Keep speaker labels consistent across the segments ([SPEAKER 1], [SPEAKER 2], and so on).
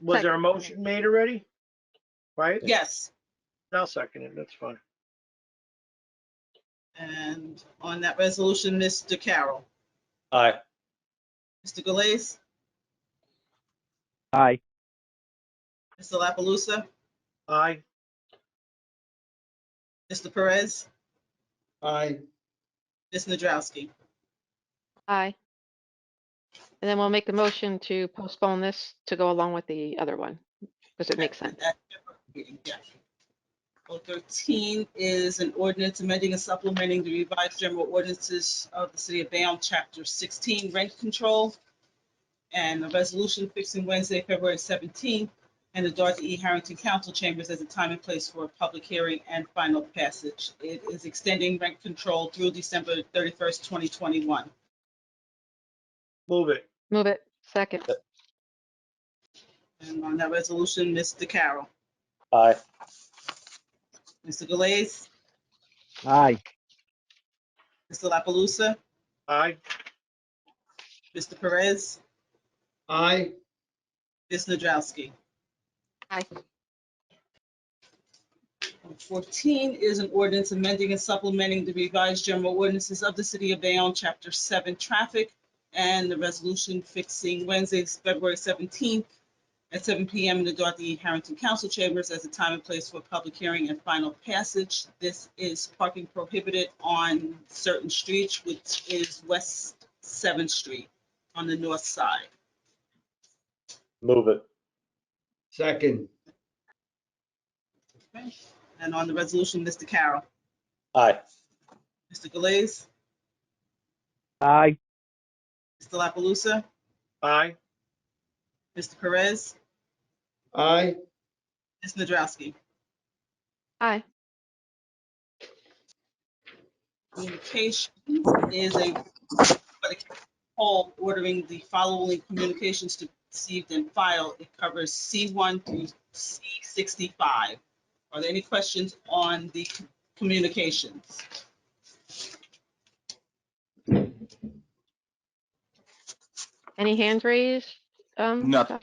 [SPEAKER 1] Was there a
[SPEAKER 2] Second.
[SPEAKER 1] motion made already? Right?
[SPEAKER 3] Yes,
[SPEAKER 1] I'll second it. That's fine.
[SPEAKER 3] and on that resolution, Mr. Carroll,
[SPEAKER 4] Aye.
[SPEAKER 3] Mr. Galais,
[SPEAKER 5] Aye.
[SPEAKER 3] Mr. La Palusa,
[SPEAKER 1] Aye.
[SPEAKER 3] Mr. Perez,
[SPEAKER 6] aye,
[SPEAKER 3] Ms. Nadrowski.
[SPEAKER 2] Aye. And then we'll make a motion to postpone this to go along with the other one, because it makes sense.
[SPEAKER 3] Well, 13 is an ordinance amending and supplementing the revised general ordinances of the city of Bayonne, chapter 16, rent control, and a resolution fixing Wednesday, February 17th, and the Dorothy E. Harrington Council Chambers as a time and place for a public hearing and final passage. It is extending rent control through December 31st, 2021.
[SPEAKER 1] Move it.
[SPEAKER 2] Move it, second.
[SPEAKER 3] And on that resolution, Mr. Carroll,
[SPEAKER 4] Aye.
[SPEAKER 3] Mr. Galais,
[SPEAKER 5] Aye.
[SPEAKER 3] Mr. La Palusa,
[SPEAKER 1] Aye.
[SPEAKER 3] Mr. Perez,
[SPEAKER 6] aye,
[SPEAKER 3] Ms. Nadrowski.
[SPEAKER 2] Aye.
[SPEAKER 3] Fourteen is an ordinance amending and supplementing the revised general ordinances of the city of Bayonne, chapter seven, traffic, and the resolution fixing Wednesday, February seventeenth at seven PM in the Dorothy E. Harrington Council Chambers as a time and place for public hearing and final passage. This is parking prohibited on certain streets, which is West Seventh Street on the north side.
[SPEAKER 4] Move it.
[SPEAKER 6] second,
[SPEAKER 3] And on the resolution, Mr. Carroll,
[SPEAKER 4] Aye.
[SPEAKER 3] Mr. Galais,
[SPEAKER 5] Aye.
[SPEAKER 3] Mr. La Palusa,
[SPEAKER 1] Aye.
[SPEAKER 3] Mr. Perez,
[SPEAKER 6] aye,
[SPEAKER 3] Ms. Nadrowski.
[SPEAKER 2] Aye.
[SPEAKER 3] Communications is a poll ordering the following communications to be received and filed. It covers C1 through C65. Are there any questions on the communications?
[SPEAKER 2] Any hands raised? Um,
[SPEAKER 7] Nothing.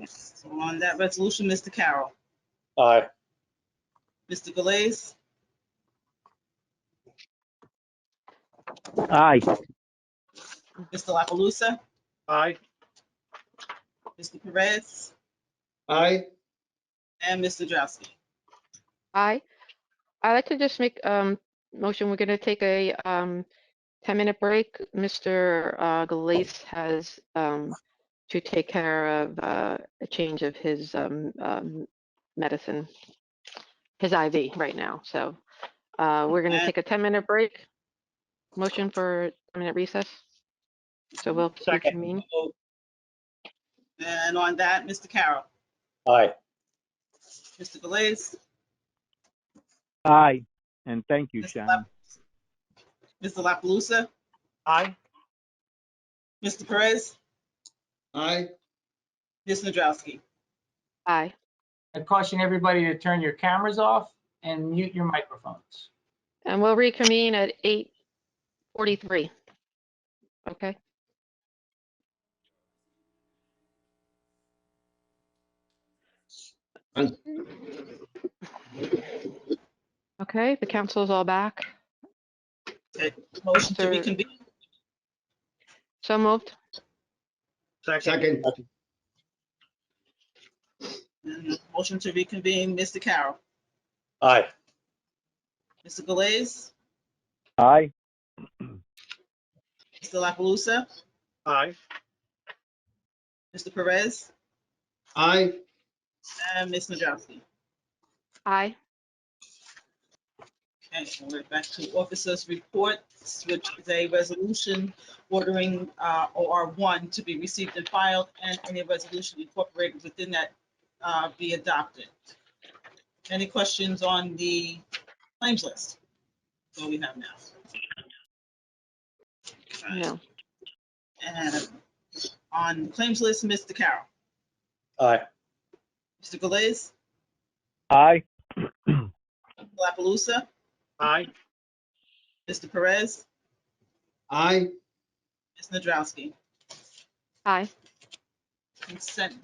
[SPEAKER 2] Josh?
[SPEAKER 3] So On that resolution, Mr. Carroll,
[SPEAKER 4] Aye.
[SPEAKER 3] Mr. Galais,
[SPEAKER 5] Aye.
[SPEAKER 3] Mr. La Palusa,
[SPEAKER 1] Aye.
[SPEAKER 3] Mr. Perez,
[SPEAKER 6] aye,
[SPEAKER 3] and Ms. Nadrowski.
[SPEAKER 2] Aye. I'd like to just make um motion. We're gonna take a um ten-minute break. Mr. uh, Galais has um to take care of uh, a change of his um um, medicine, his IV right now. So uh, we're gonna
[SPEAKER 3] Okay.
[SPEAKER 2] take a ten-minute break. Motion for a minute recess. So we'll
[SPEAKER 1] Second.
[SPEAKER 2] reconvene.
[SPEAKER 3] And on that, Mr. Carroll,
[SPEAKER 4] Aye.
[SPEAKER 3] Mr. Galais,
[SPEAKER 5] Aye. And thank you,
[SPEAKER 3] Mr.
[SPEAKER 5] Shannon.
[SPEAKER 3] Mr. La Palusa,
[SPEAKER 1] Aye.
[SPEAKER 3] Mr. Perez,
[SPEAKER 6] aye.
[SPEAKER 3] Ms. Nadrowski.
[SPEAKER 2] Aye.
[SPEAKER 8] I caution everybody to turn your cameras off and mute your microphones.
[SPEAKER 2] And we'll reconvene at eight forty-three. Okay. Okay, the council's all back.
[SPEAKER 3] Motion to
[SPEAKER 2] Mr.
[SPEAKER 3] reconvene.
[SPEAKER 2] So moved.
[SPEAKER 1] Second.
[SPEAKER 6] Second,
[SPEAKER 3] Motion to reconvene, Mr. Carroll,
[SPEAKER 4] Aye.
[SPEAKER 3] Mr. Galais,
[SPEAKER 5] Aye.
[SPEAKER 3] Mr. La Palusa,
[SPEAKER 1] Aye.
[SPEAKER 3] Mr. Perez,
[SPEAKER 6] aye,
[SPEAKER 3] and Ms. Nadrowski.
[SPEAKER 2] Aye.
[SPEAKER 3] Okay, so we're back to officers' reports, which is a resolution ordering uh, OR1 to be received and filed, and any resolution incorporated within that uh, be adopted. Any questions on the claims list? What we have now? Okay,
[SPEAKER 2] No.
[SPEAKER 3] And um, on the claims list, Mr. Carroll,
[SPEAKER 4] Aye.
[SPEAKER 3] Mr. Galais,
[SPEAKER 5] Aye.
[SPEAKER 3] La Palusa,
[SPEAKER 1] Aye.
[SPEAKER 3] Mr. Perez,
[SPEAKER 6] aye,
[SPEAKER 3] Ms. Nadrowski.
[SPEAKER 2] Aye.
[SPEAKER 3] consent